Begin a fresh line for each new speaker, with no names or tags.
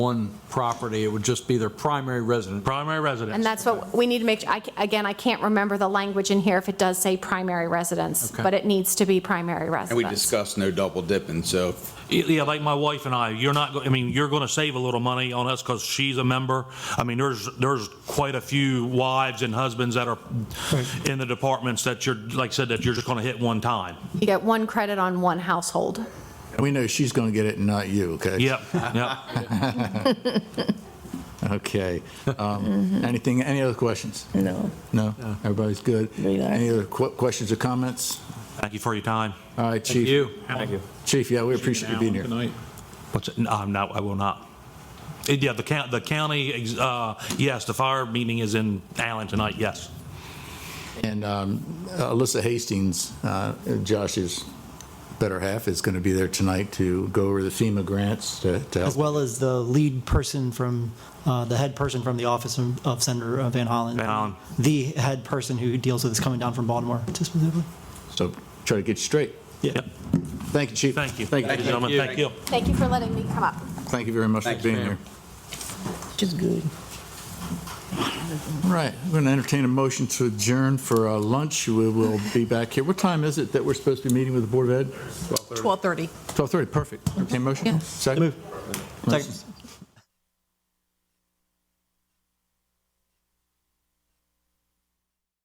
one property, it would just be their primary residence.
primary residence.
And that's what, we need to make, I ca- again, I can't remember the language in here if it does say primary residence,
Okay.
but it needs to be primary
And we
residence.
discussed no double dipping, so
Yeah, like my wife and I, you're not, go- I mean, you're going to save a little money on us because she's a member. I mean, there's, there's quite a few wives and husbands that are in the departments that you're, like I said, that you're just going to hit one time.
You get one credit on one household.
We know she's going to get it and not you, okay?
Yep, yep.
Okay. Um, Anything, any other questions?
No.
No? Everybody's good?
We got it.
Any other que- questions or comments?
Thank you for your time.
All right, Chief.
You,
Chief, yeah, we appreciate you being here.
What's, it? um, no, I'm not, I will not. Uh, Yeah, the county, the county, uh, yes, the fire meeting is in Allen tonight, yes.
And um, Alyssa Hastings, uh, Josh's better half, is going to be there tonight to go over the FEMA grants to to help.
as well as the lead person from, uh, the head person from the office of of Senator uh, Van Hollen.
Van Hollen.
The head person who deals with this coming down from Baltimore specifically.
So try to get you straight.
Yep,
Thank you, Chief.
thank you.
Thank you.
Gentlemen, thank you.
Thank you for letting me come up.
Thank you very much for
Thank you,
being
ma'am.
here.
Which is good.
All right, I'm going to entertain a motion to adjourn for uh, lunch. We will be back here. What time is it that we're supposed to be meeting with the Board of Ed?
12:30.
12:30, perfect. Entertain motion? Second?
Second.